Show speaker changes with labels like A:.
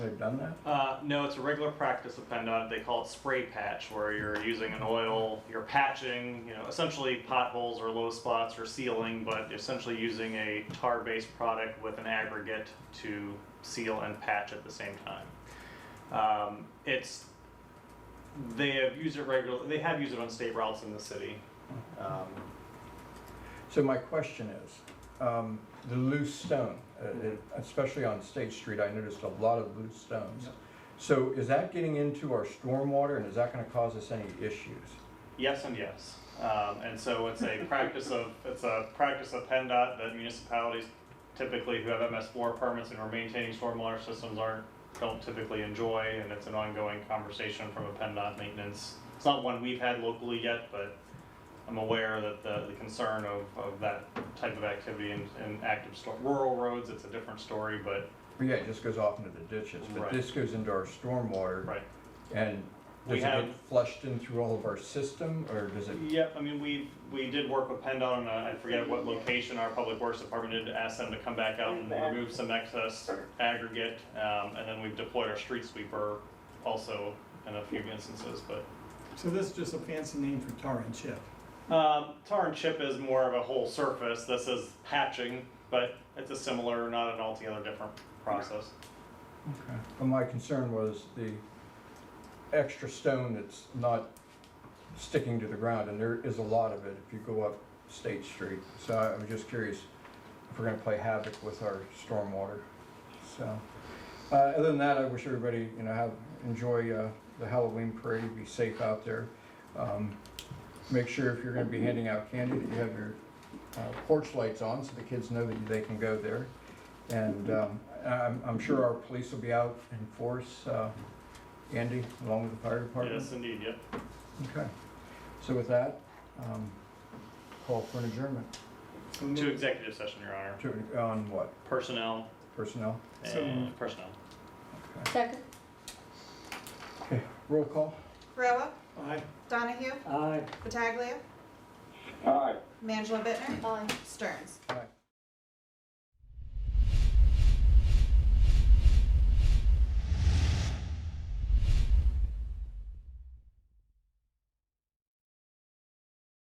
A: they've done that?
B: Uh, no, it's a regular practice of PennDOT. They call it spray patch, where you're using an oil, you're patching, you know, essentially potholes or low spots or sealing, but essentially using a tar-based product with an aggregate to seal and patch at the same time. Um, it's they have used it regularly. They have used it on state routes in the city. Um,
A: So my question is, um, the loose stone, uh,
B: Mm-hmm.
A: it- especially on State Street, I noticed a lot of loose stones.
B: Yep.
A: So is that getting into our stormwater and is that gonna cause us any issues?
B: Yes and yes. Um, and so it's a practice of, it's a practice of PennDOT that municipalities typically who have MS4 permits and are maintaining stormwater systems aren't, don't typically enjoy, and it's an ongoing conversation from a PennDOT maintenance. It's not one we've had locally yet, but I'm aware that the, the concern of, of that type of activity in, in active storm, rural roads, it's a different story, but,
A: But Yeah, it just goes off into the ditches, but
B: Right.
A: this goes into our stormwater
B: right.
A: and
B: We
A: does it get
B: have-
A: flushed in through all of our system or does it?
B: Yep, I mean, we, we did work with PennDOT on, a- I forget what location, our public works department did, to ask them to come back out and remove some excess aggregate. Um, and then we've deployed our street sweeper also in a few instances, but,
C: So this is just a fancy name for tar and chip.
B: um, tar and chip is more of a whole surface. This is patching, but it's a similar, not an altogether different process.
A: Okay. But my concern was the extra stone that's not sticking to the ground, and there is a lot of it if you go up State Street. So I- I'm just curious if we're gonna play havoc with our stormwater, so. Uh, other than that, I wish everybody, you know, have, enjoy, uh, the Halloween parade, be safe out there. Um, Make sure if you're gonna be handing out candy, that you have your uh, porch lights on, so the kids know that they can go there. And um, I'm, I'm sure our police will be out in force, uh, Andy, along with the fire department.
B: Yes, indeed, yep.
A: Okay. So with that, um, call for an adjournment
C: So
B: To
C: moved.
B: executive session, Your Honor.
A: to, on what?
B: Personnel
A: Personnel?
C: So-
B: and personnel.
A: Okay.
D: Second.
A: Okay, roll call?
E: Corolla,
C: Aye.
E: Donahue,
C: Aye.
E: Pataglia,
F: Aye.
E: Mangela Bittner,
D: Aye.
E: Stearns.
A: Aye.